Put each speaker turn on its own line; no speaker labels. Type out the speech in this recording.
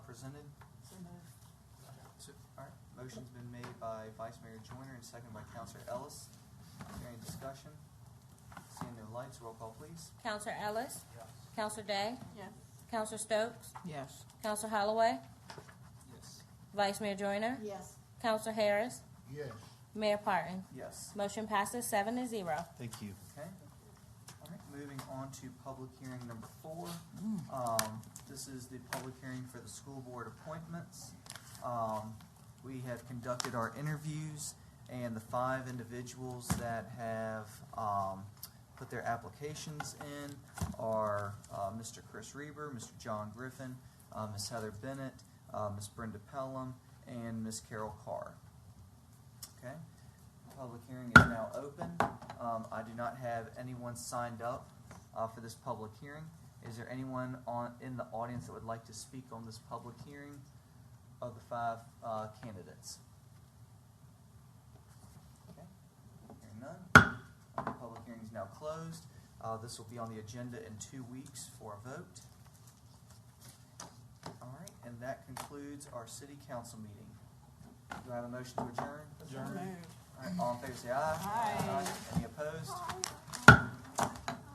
presented? So, all right, motion's been made by Vice Mayor Joyner and seconded by Counselor Ellis. Is there any discussion? Seeing no lights, roll call please.
Counselor Ellis?
Yes.
Counselor Day?
Yes.
Counselor Stokes?
Yes.
Counselor Holloway?
Yes.
Vice Mayor Joyner?
Yes.
Counselor Harris?
Yes.
Mayor Parton?
Yes.
Motion passes seven to zero.
Thank you.
Okay. All right, moving on to public hearing number four. Um, this is the public hearing for the school board appointments. Um, we have conducted our interviews and the five individuals that have, um, put their applications in are, uh, Mr. Chris Reber, Mr. John Griffin, uh, Ms. Heather Bennett, uh, Ms. Brenda Pelham, and Ms. Carol Carr. Okay? Public hearing is now open. Um, I do not have anyone signed up uh, for this public hearing. Is there anyone on, in the audience that would like to speak on this public hearing of the five uh, candidates? Okay, Hearing none, Uh, the public hearing is now closed. Uh, This will be on the agenda in two weeks for a vote. All right, and that concludes our city council meeting. Do I have a motion to adjourn?
Adjourn.
All right, all in favor, say aye.
Aye.
Any opposed?